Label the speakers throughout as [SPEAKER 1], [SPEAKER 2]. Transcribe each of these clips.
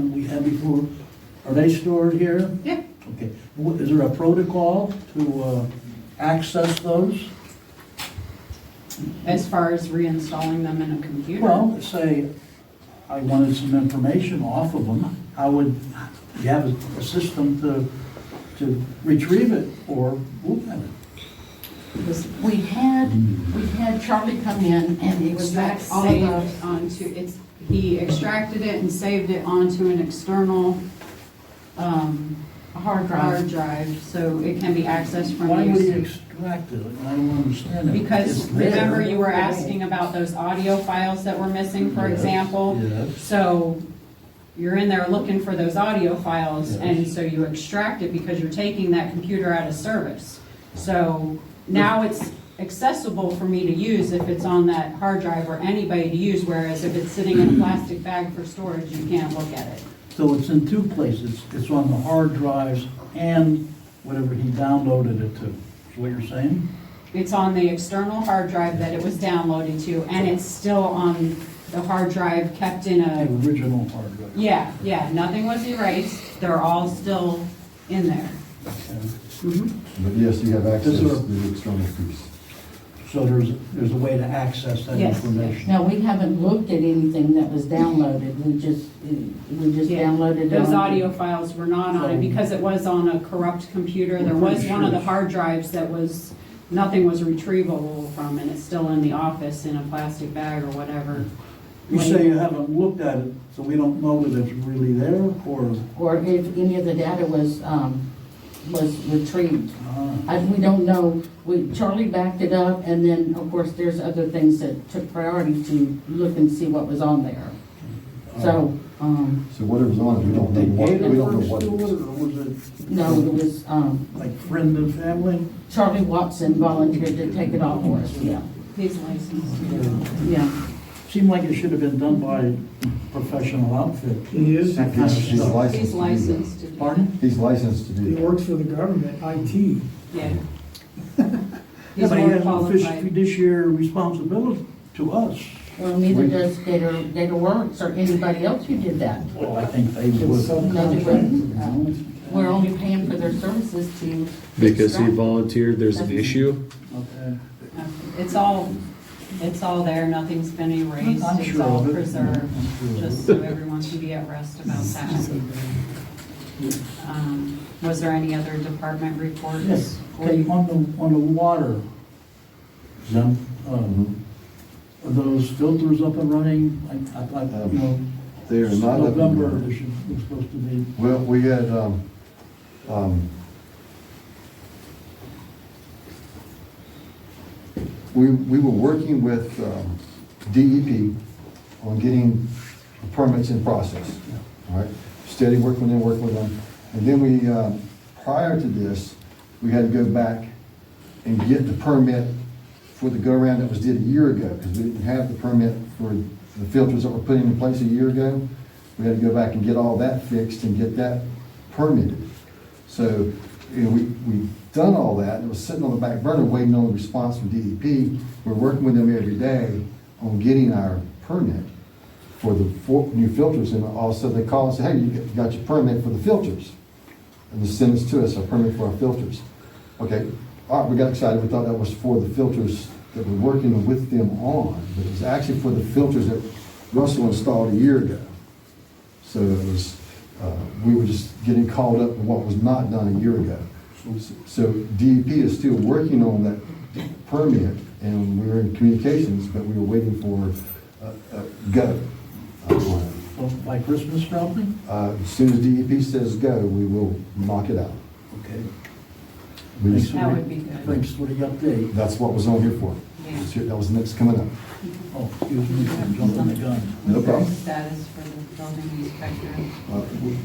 [SPEAKER 1] we had before, are they stored here?
[SPEAKER 2] Yeah.
[SPEAKER 1] Okay, Wh- is there a protocol to uh, access those?
[SPEAKER 2] As far as reinstalling them in a computer?
[SPEAKER 1] Well, say, I wanted some information off of them, how would, you have a- a system to, to retrieve it or look at it?
[SPEAKER 2] This-
[SPEAKER 3] We had, we had Charlie come in and
[SPEAKER 2] Was
[SPEAKER 3] extract
[SPEAKER 2] that
[SPEAKER 3] all of
[SPEAKER 2] saved
[SPEAKER 3] those.
[SPEAKER 2] onto, it's, he extracted it and saved it onto an external, um,
[SPEAKER 3] Hard
[SPEAKER 2] hard
[SPEAKER 3] drive.
[SPEAKER 2] drive, so it can be accessed from
[SPEAKER 1] Why would you
[SPEAKER 2] you.
[SPEAKER 1] extract it? I don't understand it.
[SPEAKER 2] Because
[SPEAKER 1] It's there.
[SPEAKER 2] remember you were asking about those audio files that were missing, for
[SPEAKER 1] Yes,
[SPEAKER 2] example?
[SPEAKER 1] Yes.
[SPEAKER 2] So you're in there looking for those audio files, and
[SPEAKER 1] Yes.
[SPEAKER 2] so you extract it because you're taking that computer out of service. So now it's accessible for me to use if it's on that hard drive or anybody to use, whereas if it's sitting in a plastic bag for storage, you can't look at it.
[SPEAKER 1] So it's in two places, it's on the hard drives and whatever he downloaded it to, is what you're saying?
[SPEAKER 2] It's on the external hard drive that it was downloaded to, and it's still on the hard drive kept in
[SPEAKER 1] The
[SPEAKER 2] a,
[SPEAKER 1] original hard drive.
[SPEAKER 2] yeah, yeah, nothing was erased. They're all still in there.
[SPEAKER 1] Okay.
[SPEAKER 4] But yes, you have access
[SPEAKER 1] Is
[SPEAKER 4] to
[SPEAKER 1] there-
[SPEAKER 4] the external piece.
[SPEAKER 1] So there's, there's a way to access that
[SPEAKER 2] Yes.
[SPEAKER 1] information?
[SPEAKER 3] Now, we haven't looked at anything that was downloaded, we just, we just
[SPEAKER 2] Yeah,
[SPEAKER 3] downloaded. it
[SPEAKER 2] Those
[SPEAKER 3] on-
[SPEAKER 2] audio files were not on it
[SPEAKER 1] So-
[SPEAKER 2] because it was on a corrupt computer. There
[SPEAKER 1] I'm
[SPEAKER 2] was
[SPEAKER 1] pretty
[SPEAKER 2] one of
[SPEAKER 1] sure
[SPEAKER 2] the
[SPEAKER 1] it's-
[SPEAKER 2] hard drives that was, nothing was retrievable from and it's still in the office in a plastic bag or whatever.
[SPEAKER 1] You say you haven't looked at it, so we don't know that it's really there, or,
[SPEAKER 3] Or if any of the data was, um, was retrieved.
[SPEAKER 1] ah,
[SPEAKER 3] I, we don't know, we, Charlie backed it up, and then, of course, there's other things that took priority to look and see what was on there. So, um,
[SPEAKER 4] So whatever's on it, we don't
[SPEAKER 1] did
[SPEAKER 4] know
[SPEAKER 1] they
[SPEAKER 4] what,
[SPEAKER 1] pay
[SPEAKER 4] we
[SPEAKER 1] the
[SPEAKER 4] don't know
[SPEAKER 1] first
[SPEAKER 4] what
[SPEAKER 1] to
[SPEAKER 4] it
[SPEAKER 1] it,
[SPEAKER 4] is.
[SPEAKER 1] or was it
[SPEAKER 3] no, it was, um,
[SPEAKER 1] like friend and family?
[SPEAKER 3] Charlie Watson volunteered to take it off for us, yeah,
[SPEAKER 2] He's licensed.
[SPEAKER 3] yeah.
[SPEAKER 1] Seemed like it should have been done by a professional outfit.
[SPEAKER 5] He is.
[SPEAKER 1] That kind of
[SPEAKER 4] He's
[SPEAKER 1] stuff.
[SPEAKER 4] licensed.
[SPEAKER 2] He's
[SPEAKER 4] to do that.
[SPEAKER 2] licensed to do that.
[SPEAKER 1] Pardon?
[SPEAKER 4] He's licensed to do
[SPEAKER 5] He
[SPEAKER 4] that.
[SPEAKER 5] works for the government, IT.
[SPEAKER 2] Yeah.
[SPEAKER 1] Yeah,
[SPEAKER 2] He's
[SPEAKER 1] but he
[SPEAKER 2] more
[SPEAKER 1] has no
[SPEAKER 2] qualified.
[SPEAKER 1] fiduciary responsibility to us.
[SPEAKER 3] Well, neither does Gator, Gator Works or anybody else who did that.
[SPEAKER 1] Well, I think they
[SPEAKER 5] It's
[SPEAKER 1] would.
[SPEAKER 3] subcontracted. We're only paying for their services to.
[SPEAKER 6] Because he
[SPEAKER 3] extract.
[SPEAKER 6] volunteered, there's an issue?
[SPEAKER 1] Okay.
[SPEAKER 2] It's all, it's all there. Nothing's been erased.
[SPEAKER 1] I'm
[SPEAKER 2] It's
[SPEAKER 1] sure
[SPEAKER 2] all
[SPEAKER 1] of it.
[SPEAKER 2] preserved,
[SPEAKER 1] I'm sure of
[SPEAKER 2] just so everyone can be at rest about that. Um, Was there any other department reports?
[SPEAKER 1] Yes,
[SPEAKER 2] Or
[SPEAKER 1] okay,
[SPEAKER 2] you-
[SPEAKER 1] on the, on the water, Jim,
[SPEAKER 4] Mm-hmm.
[SPEAKER 1] um, are those filters up and running? I, I thought, you know,
[SPEAKER 4] They are not up and
[SPEAKER 1] November,
[SPEAKER 4] running.
[SPEAKER 1] they should, they're supposed to be,
[SPEAKER 4] Well, we had, um, um, we, we were working with, um, DEP on getting the permits in process, all right? Steady working with them, working with them. And then we, um, prior to this, we had to go back and get the permit for the go-around that was did a year ago, because we didn't have the permit for the filters that were put in place a year ago. We had to go back and get all that fixed and get that permitted. So, you know, we, we done all that, and it was sitting on the back burner waiting on the response from DEP. We're working with them every day on getting our permit for the four new filters, and also they call and say, hey, you got- you got your permit for the filters. And they send us to us, our permit for our filters. Okay, all right, we got excited, we thought that was for the filters that we're working with them on, but it was actually for the filters that Russell installed a year ago. So it was, uh, we were just getting called up in what was not done a year ago. So DEP is still working on that permit, and we were in communications, but we were waiting for a- a go. on it.
[SPEAKER 1] well, by Christmas probably?
[SPEAKER 4] Uh, As soon as DEP says go, we will knock it out.
[SPEAKER 1] Okay.
[SPEAKER 4] We
[SPEAKER 1] Thanks
[SPEAKER 4] just-
[SPEAKER 1] for
[SPEAKER 2] That
[SPEAKER 1] the-
[SPEAKER 2] would be good.
[SPEAKER 1] Thanks for the update.
[SPEAKER 4] That's what was on here for.
[SPEAKER 2] Yeah.
[SPEAKER 4] It's here- That was next coming up.
[SPEAKER 1] Oh, excuse me, I'm jumping the gun.
[SPEAKER 4] No problem.
[SPEAKER 2] Status for the building inspector.
[SPEAKER 4] Uh,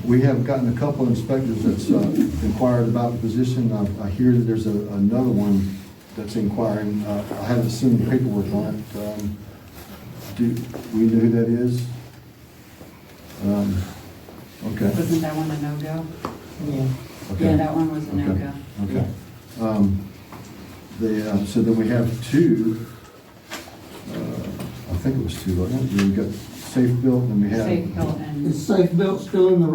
[SPEAKER 4] We have gotten a couple inspectors that's uh, inquired about the position. I I hear that there's a- another one that's inquiring. Uh, I haven't seen the paperwork on it. Um, Do we know who that is? Um, Okay.
[SPEAKER 2] Wasn't that one a no-go? Yeah,
[SPEAKER 4] Okay.
[SPEAKER 2] that one was a no-go.
[SPEAKER 4] Okay. Um, The, uh, so then we have two, uh, I think it was two, wasn't it? We've got
[SPEAKER 7] Safe Built, and we have.
[SPEAKER 8] safe built and.
[SPEAKER 4] Is Safe Built still in the